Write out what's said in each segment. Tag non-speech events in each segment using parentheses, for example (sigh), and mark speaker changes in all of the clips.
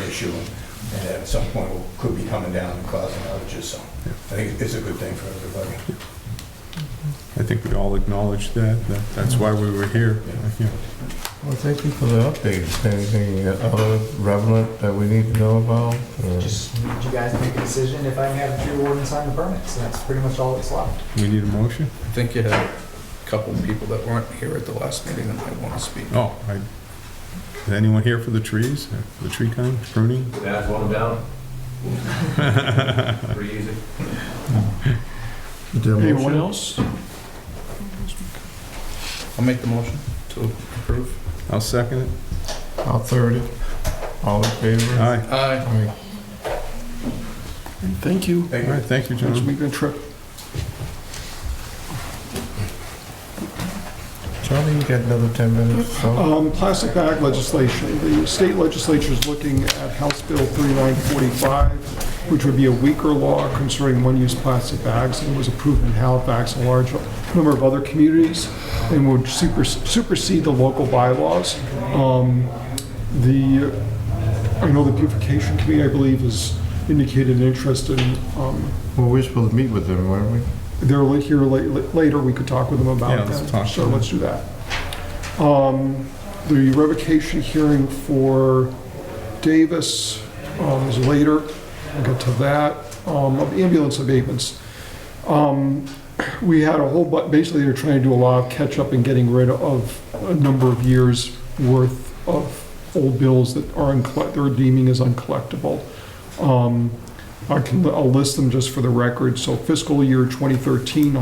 Speaker 1: issue, and at some point, could be coming down and causing outages, so I think it's a good thing for everybody.
Speaker 2: I think we all acknowledge that, that that's why we were here. Yeah.
Speaker 3: Well, thank you for the update. Is there Anything other relevant that we need to know about? or-
Speaker 4: Just need you guys to make a decision if I can have the tree warden sign the permits, and that's pretty much all that's left.
Speaker 2: We need a motion?
Speaker 5: I think you had a couple of people that weren't here at the last meeting that might want to speak.
Speaker 2: Oh, I, is anyone here for the trees, for the tree kind, pruning?
Speaker 6: That's one down. (laughs) Pretty easy.
Speaker 3: Is there a motion?
Speaker 5: else? I'll make the motion to approve.
Speaker 2: I'll second it.
Speaker 3: I'll third it. All in favor?
Speaker 2: Aye.
Speaker 5: Aye.
Speaker 3: Aye.
Speaker 7: Thank you.
Speaker 2: All
Speaker 1: Thank you.
Speaker 2: right, thank you,
Speaker 7: Next
Speaker 2: John.
Speaker 7: weekend trip.
Speaker 3: Charlie, you got another 10 minutes, so
Speaker 7: Um, Plastic bag legislation. The state legislature is looking at House Bill 3945, which would be a weaker law concerning one-use plastic bags, and was approved in Halifax and a large number of other communities, and would super- supersede the local bylaws. Um, The, I know the beautification committee, I believe, has indicated an interest in, um,
Speaker 3: well, we're supposed to meet with them, weren't we?
Speaker 7: they're li- here la- la- later, we could talk with them
Speaker 2: Yeah,
Speaker 7: about
Speaker 2: let's
Speaker 7: that.
Speaker 2: talk to
Speaker 7: So
Speaker 2: them.
Speaker 7: let's do that. Um, The revocation hearing for Davis um, is later. We'll get to that. Um, of Ambulance abatements. Um, We had a whole, but basically they're trying to do a lot of catch-up and getting rid of a number of years' worth of old bills that are, uncollect- they're deeming as uncollectible. Um, I can, I'll list them just for the record. So fiscal year 2013,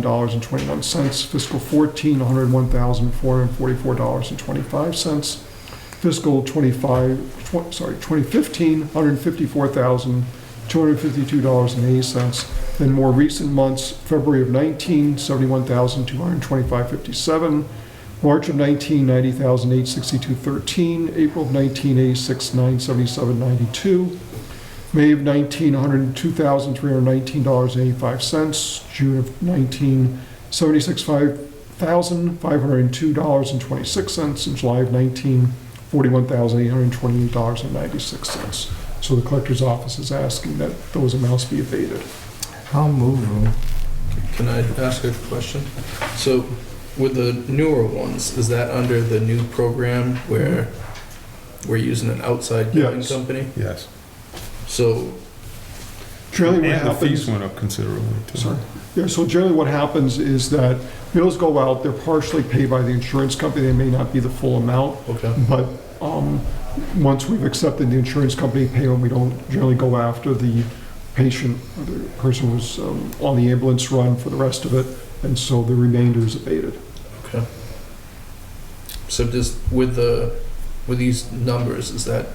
Speaker 7: $126,501.29. Fiscal 14, $101,444.25. Fiscal 25, tw- sorry, 2015, $154,252.08. Then more recent months, February of 19, $71,225.57. March of 19, 90,862.13, April of 19, 86,977.92, May of 19, $102,319.85, June of 19, 76,502.26, and July of 19, $41,828.96. So the collector's office is asking that those amounts be abated.
Speaker 3: I'll move them.
Speaker 5: Can I ask a question? So with the newer ones, is that under the new program where we're using an outside giving
Speaker 7: Yes.
Speaker 5: company?
Speaker 2: Yes.
Speaker 5: So,
Speaker 7: Shirley, what
Speaker 2: And the
Speaker 7: happens-
Speaker 2: fees went up considerably, too.
Speaker 7: Sorry. Yeah, so generally what happens is that bills go out, they're partially paid by the insurance company, they may not be the full amount,
Speaker 5: okay.
Speaker 7: but um, once we've accepted the insurance company payment, we don't generally go after the patient, or the person who's um, on the ambulance run for the rest of it, and so the remainder is abated.
Speaker 5: So just with the, with these numbers, is that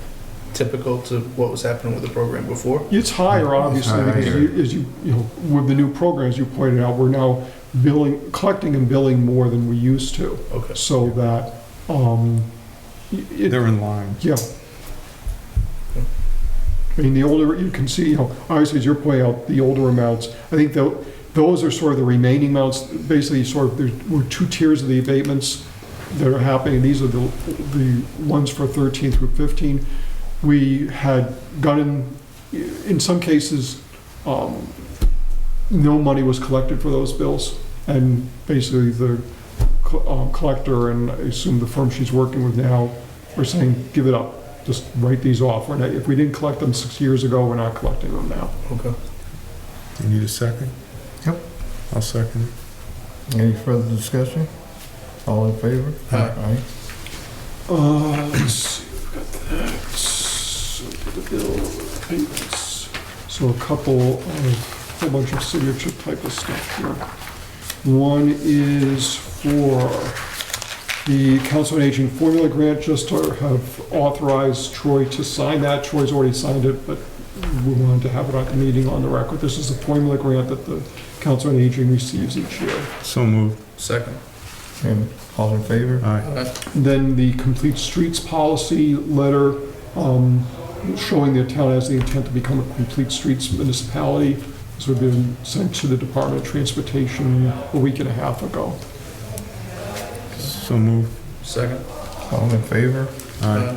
Speaker 5: typical to what was happening with the program before?
Speaker 7: It's higher, obviously, because you, as you, you know, with the new programs you pointed out, we're now billing, collecting and billing more than we used to,
Speaker 5: Okay.
Speaker 7: so that, um, it,
Speaker 2: They're in line.
Speaker 7: Yeah. I mean, the older, you can see, you know, obviously, as you're pointing out, the older amounts, I think tho- those are sort of the remaining amounts, basically, sort of, there were two tiers of the abatements that are happening, these are the, the ones for 13 through 15. We had gotten, in some cases, um, no money was collected for those bills, and basically, the co- um, collector, and I assume the firm she's working with now, we're saying, give it up, just write these off. We're not, if we didn't collect them six years ago, we're not collecting them now.
Speaker 5: Okay.
Speaker 2: You need a second?
Speaker 3: Yep.
Speaker 2: I'll second it.
Speaker 3: Any further discussion? All in favor?
Speaker 5: Aye.
Speaker 7: Uh, let's see, we've got that, so the bill payments. So a couple, of- a whole bunch of signature type of stuff here. One is for the Council on Aging Formula Grant, just to have authorized Troy to sign that. Troy's already signed it, but we wanted to have it at the meeting on the record. This is the formula grant that the Council on Aging receives each year.
Speaker 2: So moved.
Speaker 5: Second.
Speaker 3: And all in favor?
Speaker 2: Aye.
Speaker 5: Aye.
Speaker 7: Then the complete streets policy letter um, showing the town has the intent to become a complete streets municipality. This would have been sent to the Department of Transportation a week and a half ago.
Speaker 2: So moved.
Speaker 5: Second. Uh,
Speaker 3: All in favor?
Speaker 2: Aye.
Speaker 5: Aye.